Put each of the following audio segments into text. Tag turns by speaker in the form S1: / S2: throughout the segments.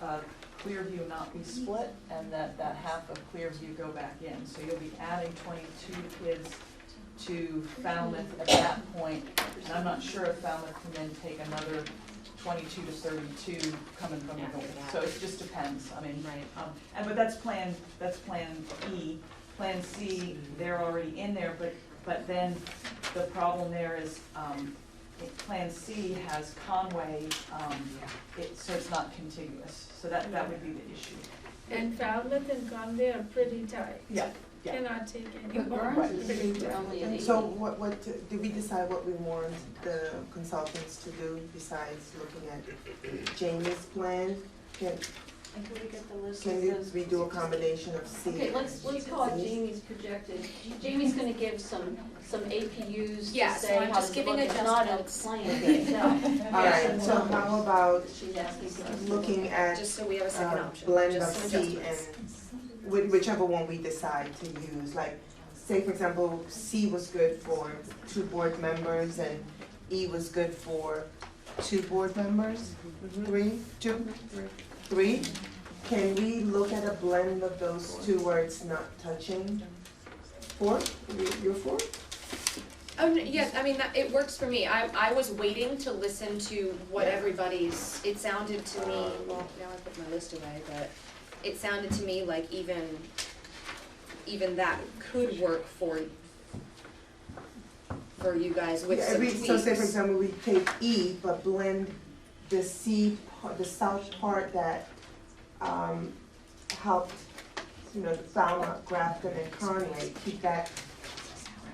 S1: uh, Clearview not be split, and that that half of Clearview go back in. So you'll be adding twenty-two kids to Falmouth at that point, and I'm not sure if Falmouth can then take another twenty-two to thirty-two coming from the
S2: After
S1: north.
S2: that.
S1: So it just depends, I mean,
S2: Right.
S1: um, and, but that's plan, that's plan E. Plan C, they're already in there, but, but then the problem there is, um, it- Plan C has Conway, um, it, so it's not contiguous, so that, that would be the issue.
S3: And Falmouth and Conway are pretty tight.
S4: Yeah, yeah.
S3: Cannot take any
S5: But
S3: more.
S5: Burns
S4: Right.
S5: is pretty early at eighty.
S4: So what, what, did we decide what we want the consultants to do besides looking at Jamie's plan? Can,
S5: And could we get the list
S4: can
S5: of
S4: you-
S5: those?
S4: we do a combination of C?
S5: Okay, let's, let's call it Jamie's projected, Jamie's gonna give some, some APUs
S6: Yeah,
S5: to
S6: so
S5: say
S6: I'm
S5: how
S6: just
S5: to
S6: giving
S5: look, it's not a
S6: adjustments.
S5: plan itself.
S4: All right, so how about
S5: She's asking for us to look
S4: looking
S5: at.
S4: at
S6: Just so we have a second
S4: uh,
S6: option,
S4: blend of
S6: just some
S4: C
S6: adjustments.
S4: and whi- whichever one we decide to use, like, say for example, C was good for two board members and E was good for two board members,
S6: Mm-hmm.
S4: three, two, three? Can we look at a blend of those two where it's not touching? Four, You- you're four?
S6: Oh, no, yeah, I mean, that, it works for me, I, I was waiting to listen to what everybody's, it sounded to me, Um, well, now I put my list away, but it sounded to me like even, even that could work for, for you guys with
S4: Yeah,
S6: some
S4: every-
S6: tweaks.
S4: So say for example, we take E, but blend the C, par- the south part that, um, helped, you know, Falmouth, Grafton and Conway, keep that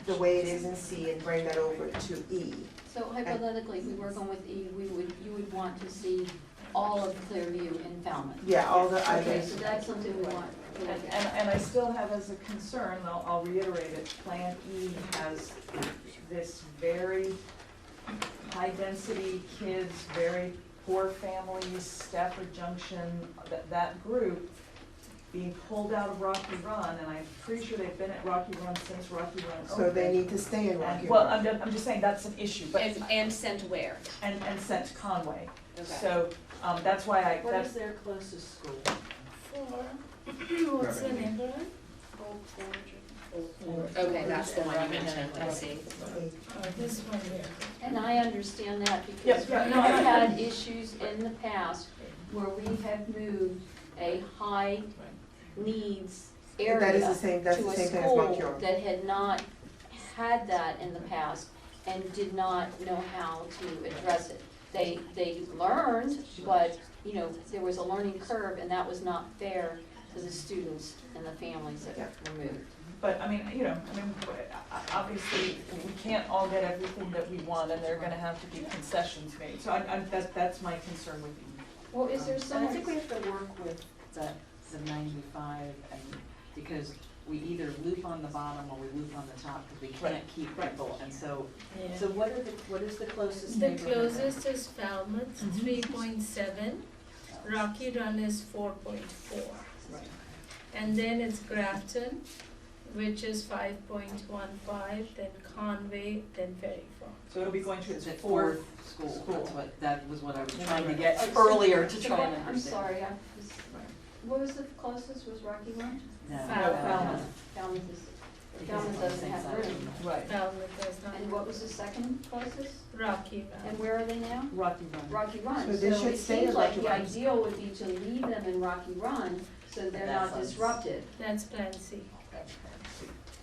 S4: the way it is in C and bring that over to E.
S5: So hypothetically, if we work on with E, we would, you would want to see all of Clearview in Falmouth.
S4: Yeah, all the
S5: Okay,
S4: others,
S5: so that's something we want to look
S1: And,
S5: at.
S1: and, and I still have as a concern, I'll, I'll reiterate it, Plan E has this very high-density kids, very poor families, Stafford Junction, that, that group being pulled out of Rocky Run, and I'm pretty sure they've been at Rocky Run since Rocky Run opened.
S4: so they need to stay in Rocky
S1: And,
S4: Run.
S1: well, I'm, ju- I'm just saying, that's an issue, but,
S6: And, and sent where,
S1: and, and sent Conway.
S6: okay.
S1: So, um, that's why I,
S5: What is
S1: that's,
S5: their closest school?
S3: Four. What's the number?
S6: Okay, that's the one you mentioned, I see.
S3: Oh, this one here.
S5: And I understand that because
S1: Yeah,
S5: we've
S1: no, I-
S5: had issues in the past where we have moved a high needs area
S4: That is the same, that's
S5: to
S4: the
S5: a
S4: same thing as Montcure.
S5: school that had not had that in the past and did not know how to address it. They, they learned, but, you know, there was a learning curve and that was not fair to the students and the families that were moved.
S1: But I mean, you know, I mean, w- o- obviously, we can't all get everything that we want and there are gonna have to be concessions made. So I, I, that's, that's my concern with you.
S5: Well, is there
S7: And
S5: some?
S7: I think we have to work with the, the ninety-five and, because we either loop on the bottom or we loop on the top, because we can't keep people, and so,
S3: Yeah.
S7: so what are the, what is the closest
S3: The
S7: neighborhood?
S3: closest is Falmouth,
S5: Mm-hmm.
S3: three point seven. Rocky Run is four point four. And then it's Grafton, which is five point one five, then Conway, then Ferry Farm.
S1: So it'll be going to its
S7: Is it
S1: fourth,
S7: fourth school,
S1: school.
S7: that's what, that was what I was
S1: Yeah,
S7: trying to
S1: right. Oh,
S7: get earlier to try and understand.
S5: I'm sorry, I was, what was the closest, was Rocky Run?
S7: No, no,
S3: Falmouth.
S7: no,
S1: Falmouth.
S5: Falmouth is,
S7: because
S5: Falmouth
S7: it's on the
S5: doesn't
S7: same
S5: have
S7: side of the
S5: room.
S1: right,
S3: Falmouth is not.
S5: And what was the second closest?
S3: Rocky
S5: And
S7: Uh,
S3: Run.
S5: where are they now?
S7: um,
S1: Rocky Run.
S5: Rocky Run.
S4: So they should stay in Rocky Run.
S5: it seems like the ideal would be to leave them in Rocky Run so they're
S7: That
S5: not
S7: sounds-
S5: disrupted.
S3: That's Plan C.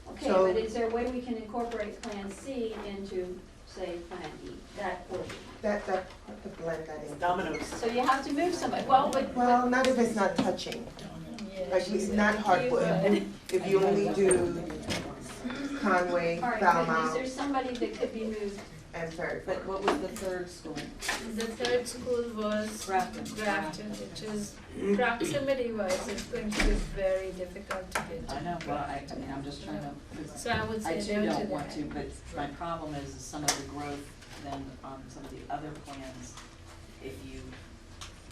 S5: Okay,
S4: So-
S5: but is there a way we can incorporate Plan C into, say, Plan E, that order?
S4: That, that, the blend that in.
S5: So you have to move somebody, well, but,
S4: Well,
S5: but,
S4: not if it's not touching,
S3: Yeah,
S4: like,
S3: she
S4: it's
S3: said
S4: not
S3: the
S4: hardwood,
S3: keyword.
S4: if you only do Conway,
S5: all right, but is
S4: Falmouth,
S5: there somebody that could be moved?
S4: and Ferry Farm.
S2: But what was the third school?
S3: The third school was
S1: Grafton.
S3: Grafton, which is
S4: Mm-hmm.
S3: proximity wise, it's going to be very difficult to get
S7: I
S3: to.
S7: know, well, I, I mean, I'm just trying to, 'cause
S3: So I would
S7: I
S3: say
S7: too
S3: no to
S7: don't want to,
S3: that.
S7: but my problem is is some of the growth then on some of the other plans, if you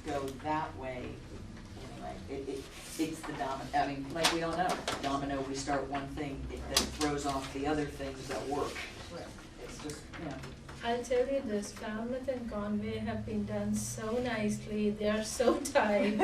S7: go that way, anyway, it, it, it's the domino, I mean, like, we all know, domino, we start one thing, it then throws off the other things that work. It's just, you know,
S3: I'll tell you this, Falmouth and Conway have been done so nicely, they are so tight.